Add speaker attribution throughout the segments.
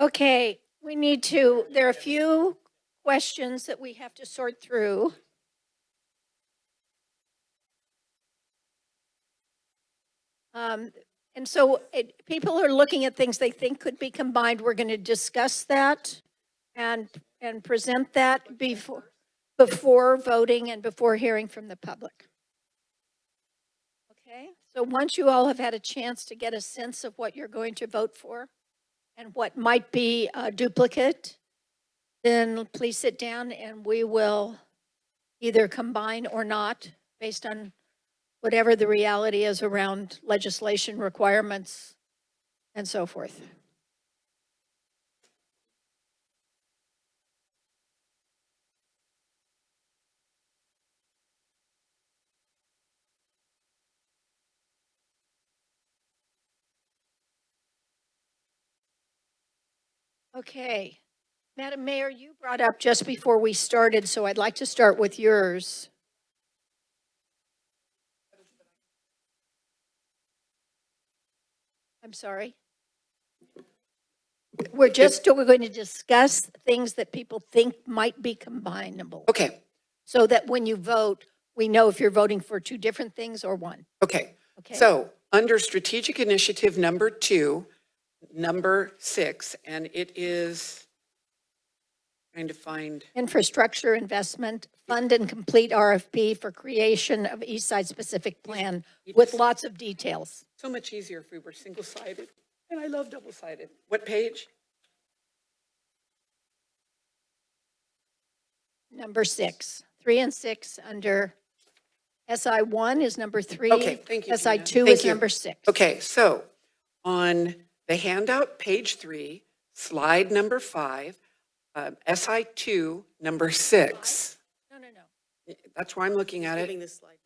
Speaker 1: Okay, we need to, there are a few questions that we have to sort through. Um, And so it- people are looking at things they think could be combined. We're going to discuss that and, and present that before, before voting and before hearing from the public. Okay, so once you all have had a chance to get a sense of what you're going to vote for, and what might be a duplicate, then please sit down and we will either combine or not, based on whatever the reality is around legislation requirements and so forth. Okay. Madam Mayor, you brought up just before we started, so I'd like to start with yours. I'm sorry. We're just, we're going to discuss things that people think might be combinable,
Speaker 2: Okay,
Speaker 1: so that when you vote, we know if you're voting for two different things or one,
Speaker 2: okay.
Speaker 1: okay?
Speaker 2: So under strategic initiative number two, number six, and it is trying to find,
Speaker 1: Infrastructure investment, fund and complete RFP for creation of East Side specific plan with lots of details.
Speaker 2: so much easier if we were single-sided, and I love double-sided. What page?
Speaker 1: Number six, three and six under SI one is number three.
Speaker 2: Okay, thank you,
Speaker 1: SI
Speaker 2: Gina.
Speaker 1: two
Speaker 2: Thank
Speaker 1: is
Speaker 2: you.
Speaker 1: number six.
Speaker 2: Okay, so on the handout, page three, slide number five, um, SI two, number six.
Speaker 1: No, no, no.
Speaker 2: That's where I'm looking at it.
Speaker 3: Giving this slide.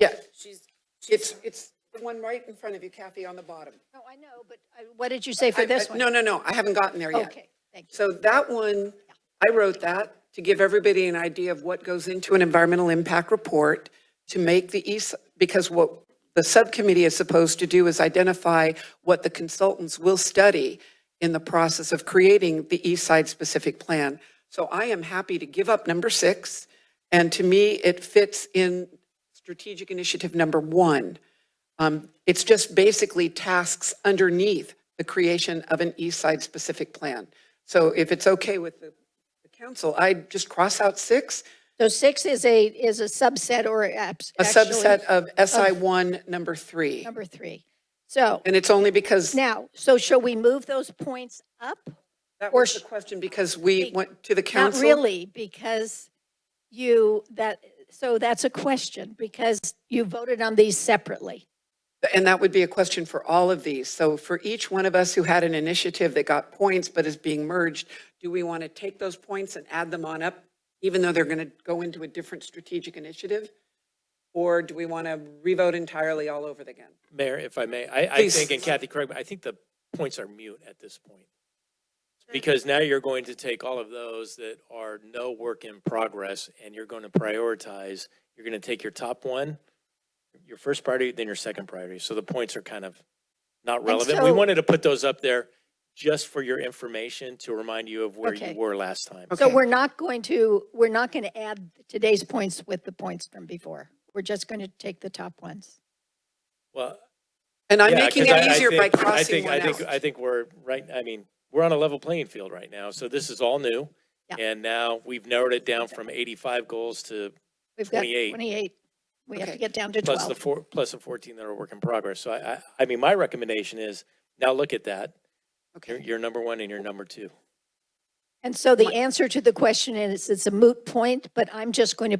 Speaker 2: Yeah,
Speaker 3: She's, she's,
Speaker 2: it's, it's the one right in front of you, Kathy, on the bottom.
Speaker 1: No, I know, but uh, what did you say for
Speaker 2: I-
Speaker 1: this
Speaker 2: I-
Speaker 1: one?
Speaker 2: No, no, no, I haven't gotten there yet.
Speaker 1: Okay, thank you.
Speaker 2: So that one, I wrote that to give everybody an idea of what goes into an environmental impact report to make the east, because what the subcommittee is supposed to do is identify what the consultants will study in the process of creating the east side specific plan. So I am happy to give up number six, and to me, it fits in strategic initiative number one. Um, It's just basically tasks underneath the creation of an east side specific plan. So if it's okay with the the council, I just cross out six,
Speaker 1: So six is a, is a subset or abs-
Speaker 2: a
Speaker 1: actually
Speaker 2: subset of SI one, number three.
Speaker 1: Number three. So
Speaker 2: And it's only because,
Speaker 1: now, so shall we move those points up?
Speaker 2: that was the question, because we went to the
Speaker 1: Not
Speaker 2: council.
Speaker 1: really, because you, that, so that's a question, because you voted on these separately.
Speaker 2: And that would be a question for all of these. So for each one of us who had an initiative that got points but is being merged, do we want to take those points and add them on up, even though they're going to go into a different strategic initiative? Or do we want to revote entirely all over again?
Speaker 4: Mayor, if I may, I, I
Speaker 2: Please.
Speaker 4: think, and Kathy, correct me, I think the points are mute at this point. Because now you're going to take all of those that are no work in progress and you're going to prioritize. You're going to take your top one, your first priority, then your second priority. So the points are kind of not relevant. We
Speaker 1: so-
Speaker 4: wanted to put those up there just for your information to remind you of where
Speaker 1: Okay.
Speaker 4: you were last time.
Speaker 1: So
Speaker 2: Okay.
Speaker 1: we're not going to, we're not going to add today's points with the points from before. We're just going to take the top ones.
Speaker 4: Well,
Speaker 2: And I'm
Speaker 4: Yeah,
Speaker 2: making
Speaker 4: 'cause I-
Speaker 2: it
Speaker 4: I
Speaker 2: easier by
Speaker 4: think- I
Speaker 2: crossing
Speaker 4: think-
Speaker 2: one
Speaker 4: I think, I
Speaker 2: out.
Speaker 4: think we're, right, I mean, we're on a level playing field right now, so this is all new.
Speaker 1: Yeah.
Speaker 4: And now we've narrowed it down from 85 goals to,
Speaker 1: We've got
Speaker 4: 28.
Speaker 1: 28. We have to
Speaker 2: Okay.
Speaker 1: get down to
Speaker 4: plus the
Speaker 1: 12.
Speaker 4: four, plus the 14 that are work in progress. So I, I, I mean, my recommendation is, now look at that. You're,
Speaker 2: Okay,
Speaker 4: you're number one and you're number two.
Speaker 1: And so the answer to the question is, it's a moot point, but I'm just going to